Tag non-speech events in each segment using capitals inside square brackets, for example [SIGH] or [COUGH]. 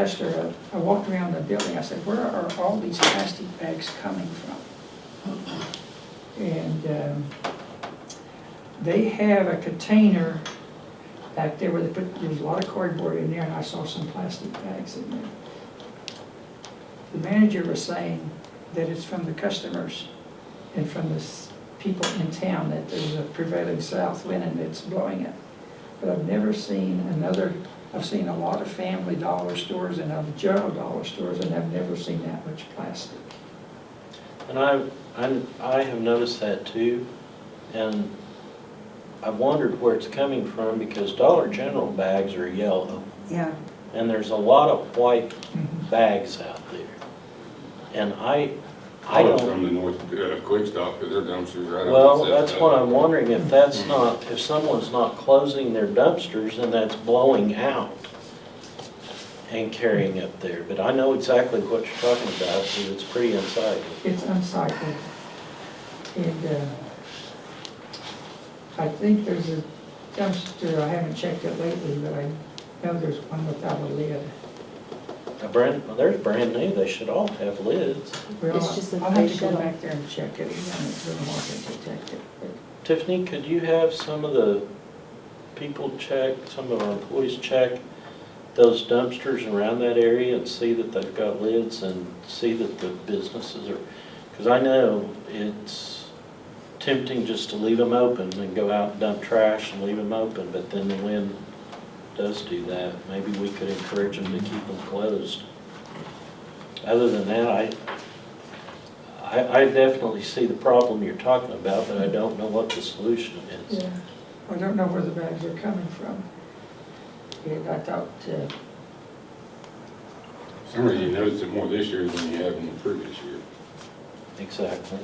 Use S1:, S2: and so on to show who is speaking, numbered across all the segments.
S1: Lester, uh, I walked around the building, I said, where are all these plastic bags coming from? And um, they have a container back there where they put, there was a lot of cardboard in there, and I saw some plastic bags in there. The manager was saying that it's from the customers and from the s- people in town, that there's a prevailing south wind and it's blowing it. But I've never seen another I've seen a lot of family dollar stores and other general dollar stores, and I've never seen that much plastic.
S2: And I, I, I have noticed that too, and I've wondered where it's coming from, because Dollar General bags are yellow,
S3: Yeah,
S2: and there's a lot of white
S1: Mm-hmm.
S2: bags out there. And I, I
S4: Probably
S2: don't,
S4: From the north, uh, Quick Stop, 'cause their dumpsters right up.
S2: well,
S4: against
S2: that's
S4: that
S2: what
S4: stuff.
S2: I'm wondering, if that's not, if someone's not closing their dumpsters and that's blowing out and carrying up there, but I know exactly what you're talking about, because it's pretty unsightly.
S1: It's unsightly. And uh, I think there's a dumpster, I haven't checked it lately, but I know there's one without a lid.
S2: A brand, well, there's brand new, they should all have lids.
S1: Well,
S3: It's just that
S1: I'll
S3: they
S1: have to go
S3: shut 'em.
S1: back there and check it, again. it's been a while since I checked it. but-
S2: Tiffany, could you have some of the people check, some of our employees check those dumpsters around that area and see that they've got lids and see that the businesses are, because I know it's tempting just to leave them open and go out and dump trash and leave them open, but then the wind does do that. Maybe we could encourage them to keep them closed. Other than that, I, I, I definitely see the problem you're talking about, but I don't know what the solution is.
S1: Yeah. I don't know where the bags are coming from. And I thought, uh,
S4: Some of you noticed it more this year than you have in the previous year.
S2: Exactly.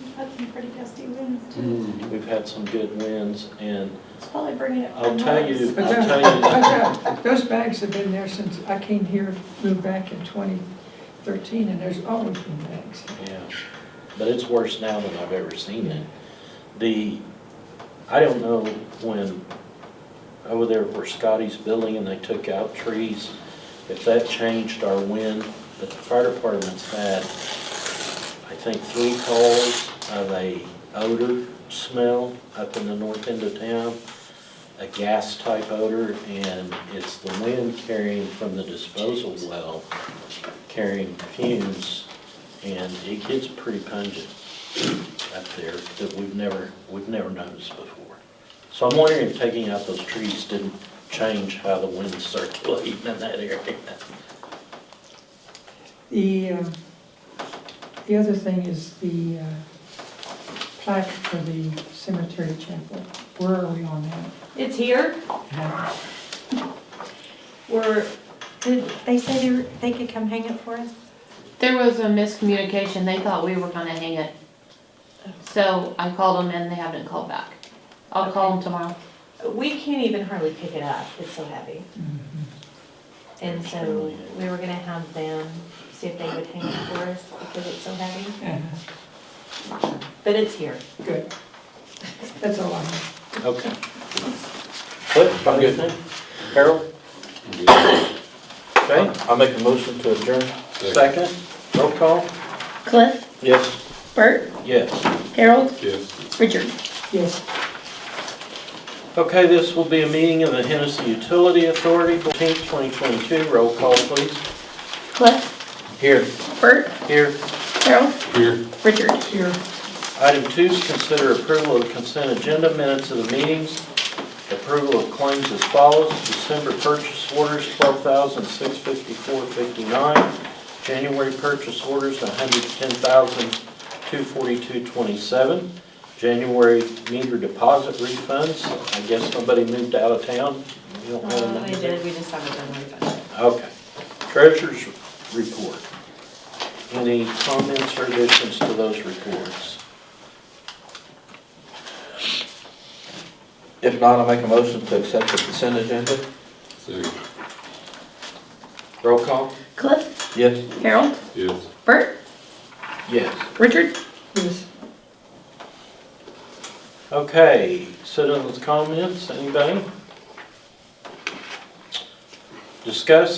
S5: We've had some pretty gusty winds too.
S2: We've had some good wins, and
S5: It's probably bringing it.
S2: I'll tell you,
S1: But
S2: I'll tell you,
S1: those- but [LAUGHS] Those bags have been there since I came here, moved back in 2013, and there's always been bags.
S2: yeah, but it's worse now than I've ever seen it. The, I don't know when, over there where Scotty's building and they took out trees, if that changed our wind, but the fire department's had, I think, three calls of a odor smell up in the north end of town, a gas type odor, and it's the wind carrying from the disposal well, carrying fumes, and it gets pretty pungent up there that we've never, we've never noticed before. So I'm wondering if taking out those trees didn't change how the wind's circulating in that area.
S1: The, uh, the other thing is the uh, plaque for the cemetery chapel. Where are we on that?
S3: it's here.
S5: We're, did they say they, were- they could come hang it for us?
S6: There was a miscommunication. They thought we were gonna hang it. So I called them and they haven't called back. I'll call them tomorrow.
S7: We can't even hardly pick it up, it's so heavy.
S5: Mm-hmm.
S7: And so we were gonna have them see if they would hang it for us because it's so heavy, but it's here.
S1: Good. That's all I have.
S2: Okay. Cliff, got anything? Harold? Okay,
S8: I'll make a motion to adjourn.
S2: second, roll call?
S9: Cliff,
S2: Yes.
S9: Bert,
S2: Yes.
S9: Harold,
S4: Yes.
S9: Richard.
S1: Yes.
S2: Okay, this will be a meeting of the Hennessy Utility Authority, 14th, 2022, roll call please.
S9: Cliff,
S2: Here.
S9: Bert,
S2: Here.
S9: Harold,
S4: Here.
S9: Richard.
S1: Here.
S2: Item two is consider approval of consent agenda minutes of the meetings. Approval of claims as follows. December purchase orders, twelve thousand six fifty-four fifty-nine. January purchase orders, one hundred ten thousand two forty-two twenty-seven. January meter deposit refunds. I guess somebody moved out of town. You don't have a
S7: Uh,
S2: number?
S7: They did, we just haven't done it yet.
S2: Okay. Treasurer's report. Any comments or additions to those reports?
S8: If not, I'll make a motion to accept the consent agenda.
S4: Second.
S2: Roll call?
S9: Cliff,
S8: Yes.
S9: Harold,
S4: Yes.
S9: Bert,
S2: Yes.
S9: Richard.
S1: Yes.
S2: Okay, citizens' comments, anybody? Discuss